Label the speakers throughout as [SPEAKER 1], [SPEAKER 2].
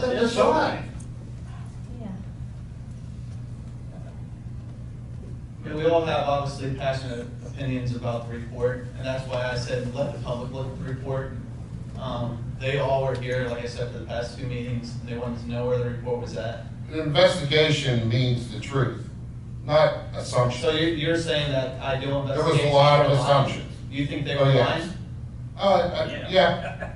[SPEAKER 1] nothing to sign.
[SPEAKER 2] Yeah.
[SPEAKER 3] And we all have obviously passionate opinions about the report, and that's why I said, let the public look at the report. Um, They all were here, like I said, for the past two meetings, and they wanted to know where the report was at.
[SPEAKER 1] An investigation means the truth, not
[SPEAKER 3] So
[SPEAKER 1] assumption.
[SPEAKER 3] you're, you're saying that I do
[SPEAKER 1] was a
[SPEAKER 3] investigations.
[SPEAKER 1] lot of
[SPEAKER 3] were lying?
[SPEAKER 1] assumptions.
[SPEAKER 3] You think they
[SPEAKER 1] Oh,
[SPEAKER 3] were
[SPEAKER 1] yes.
[SPEAKER 3] lying?
[SPEAKER 1] Oh, I- I- yeah,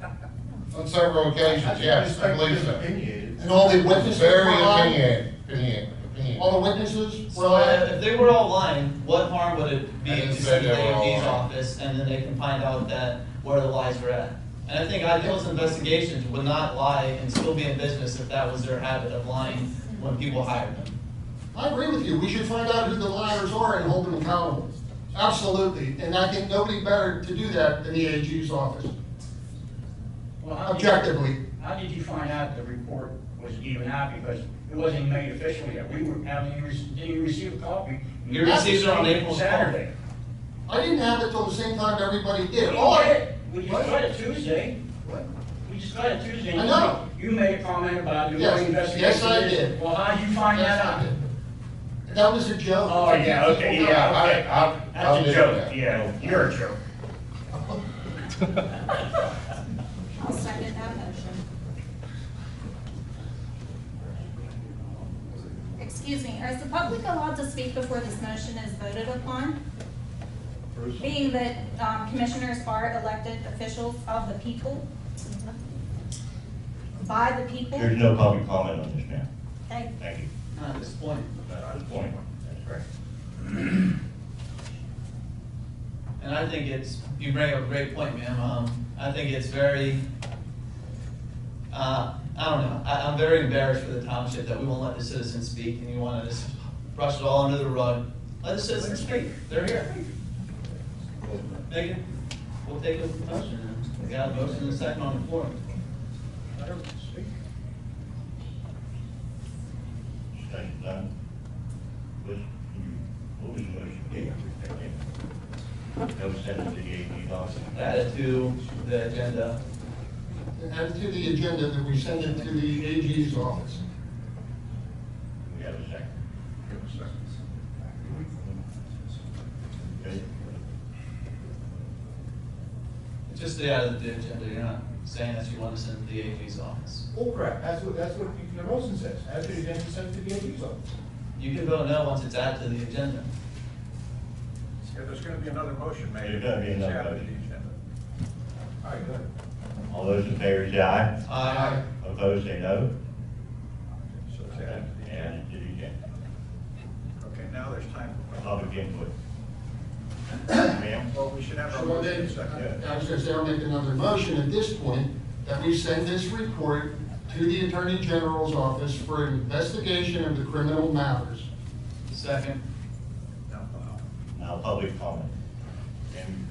[SPEAKER 1] on several occasions, yes, I believe so.
[SPEAKER 4] Opinionated.
[SPEAKER 5] And all the witnesses were
[SPEAKER 1] Very
[SPEAKER 5] lying?
[SPEAKER 1] opinion, opinion, opinion.
[SPEAKER 5] All the witnesses were
[SPEAKER 3] So if
[SPEAKER 5] lying?
[SPEAKER 3] if they were all lying, what harm would it be
[SPEAKER 1] I didn't
[SPEAKER 3] to
[SPEAKER 1] say
[SPEAKER 3] send the
[SPEAKER 1] they were all
[SPEAKER 3] AOD's
[SPEAKER 1] lying.
[SPEAKER 3] office and then they can find out that where the lies were at? And I think Ideal's investigations would not lie and still be in business if that was their habit of lying when people hired them.
[SPEAKER 5] I agree with you, we should find out who the liars are and hold them accountable. Absolutely, and I think nobody better to do that than the AG's office,
[SPEAKER 6] Well, how did you-
[SPEAKER 5] objectively.
[SPEAKER 6] How did you find out the report was even out because it wasn't made official yet? We were, how did you, rec- did you receive a copy?
[SPEAKER 3] You received it on April 12th.
[SPEAKER 6] Saturday.
[SPEAKER 5] I didn't have it till the same time everybody did. All
[SPEAKER 6] We
[SPEAKER 5] I,
[SPEAKER 6] did. We
[SPEAKER 5] What?
[SPEAKER 6] just got it Tuesday.
[SPEAKER 5] What?
[SPEAKER 6] We just got it Tuesday.
[SPEAKER 5] I know.
[SPEAKER 6] You made a comment about doing
[SPEAKER 5] Yes.
[SPEAKER 6] investigation.
[SPEAKER 5] Yes, I did.
[SPEAKER 6] Well, how did you find
[SPEAKER 5] Yes,
[SPEAKER 6] that
[SPEAKER 5] I
[SPEAKER 6] out?
[SPEAKER 5] did. That was a joke.
[SPEAKER 6] Oh, yeah, okay,
[SPEAKER 1] Yeah,
[SPEAKER 6] yeah, okay.
[SPEAKER 1] I, I, I
[SPEAKER 6] That's a
[SPEAKER 1] did
[SPEAKER 6] joke,
[SPEAKER 1] that.
[SPEAKER 6] yeah, you're a joke.
[SPEAKER 2] I'll second that motion. Excuse me, is the public allowed to speak before this motion is voted upon? Being that um, commissioners are elected officials of the people, by the people?
[SPEAKER 7] There's no public comment on this now.
[SPEAKER 2] Thank-
[SPEAKER 7] Thank you.
[SPEAKER 3] Not at this point.
[SPEAKER 7] Not on this point. That's correct.
[SPEAKER 3] And I think it's, you bring up a great point, ma'am. Um, I think it's very, uh, I don't know, I, I'm very embarrassed for the township that we won't let the citizens speak and you want to just brush it all under the rug. Let the citizens speak, they're here. Megan, we'll take a motion. then. We got a motion and a second on the floor.
[SPEAKER 7] Thank you, Don. What, you- what was the motion? Yeah. That was sent to the AG office.
[SPEAKER 3] Add it to the agenda.
[SPEAKER 5] Add it to the agenda that we send it to the AG's office.
[SPEAKER 7] We have a second. Okay.
[SPEAKER 3] It's Just the add it to the agenda, you're not saying that you want to send it to the AG's office.
[SPEAKER 4] All Oh, correct, that's what, that's what the motion says, as it is then sent to the AG's office.
[SPEAKER 3] You can vote no once it's added to the agenda.
[SPEAKER 8] Yeah, there's gonna be another motion made.
[SPEAKER 7] There's gonna be another
[SPEAKER 8] It's added to
[SPEAKER 7] motion.
[SPEAKER 8] the agenda.
[SPEAKER 4] All right, go ahead.
[SPEAKER 7] All those in favor say aye.
[SPEAKER 3] Aye.
[SPEAKER 7] Opposed, say no.
[SPEAKER 8] So it's added to the agenda.
[SPEAKER 7] Added to the agenda.
[SPEAKER 8] Okay, now there's time for,
[SPEAKER 7] Public input. Ma'am?
[SPEAKER 8] well, we should have our
[SPEAKER 5] So
[SPEAKER 8] motion
[SPEAKER 5] then,
[SPEAKER 8] in a second.
[SPEAKER 5] I was gonna say, I'll make another motion at this point, that we send this report to the Attorney General's office for investigation of the criminal matters.
[SPEAKER 3] Second.
[SPEAKER 8] No, no.
[SPEAKER 7] Now, public comment. And-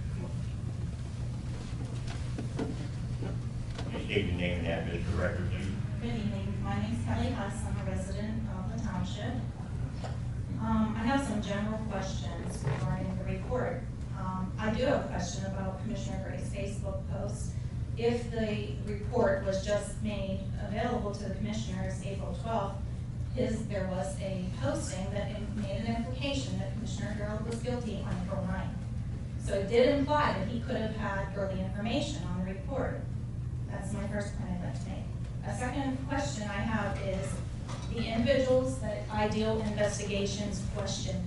[SPEAKER 7] Just state your name and address for record, please.
[SPEAKER 9] Good evening, my name's Kelly Huss, I'm a resident of the township. Um, I have some general questions regarding the report. Um, I do have a question about Commissioner Gray's Facebook post. If the report was just made available to the commissioners April twelfth, his, there was a posting that in- made an implication that Commissioner Gerald was guilty on April 9th. So it did imply that he could have had early information on the report. That's my first point I'd like to make. A second question I have is, the individuals that Ideal Investigations questioned,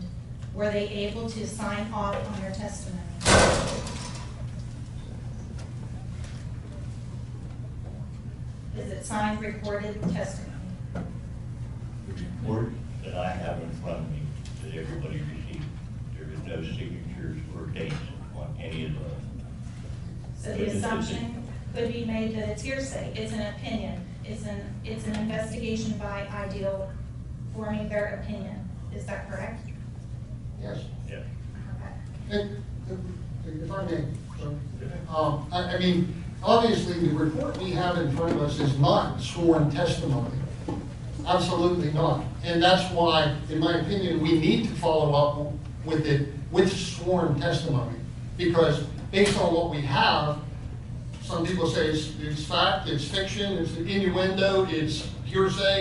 [SPEAKER 9] were they able to sign off on their testimony? Is it signed, recorded testimony?
[SPEAKER 7] The report that I have in front of me that everybody received, there is no signatures or dates on any of those.
[SPEAKER 9] So the assumption could be made that it's hearsay, it's an opinion, it's an, it's an investigation by Ideal forming their opinion. Is that correct?
[SPEAKER 5] Yes?
[SPEAKER 7] Yeah.
[SPEAKER 9] Okay.
[SPEAKER 5] If if I may, um, I, I mean, obviously, the report we have in front of us is not sworn testimony. Absolutely not. And that's why, in my opinion, we need to follow up with it, with sworn testimony. Because based on what we have, some people say it's, it's fact, it's fiction, it's innuendo, it's hearsay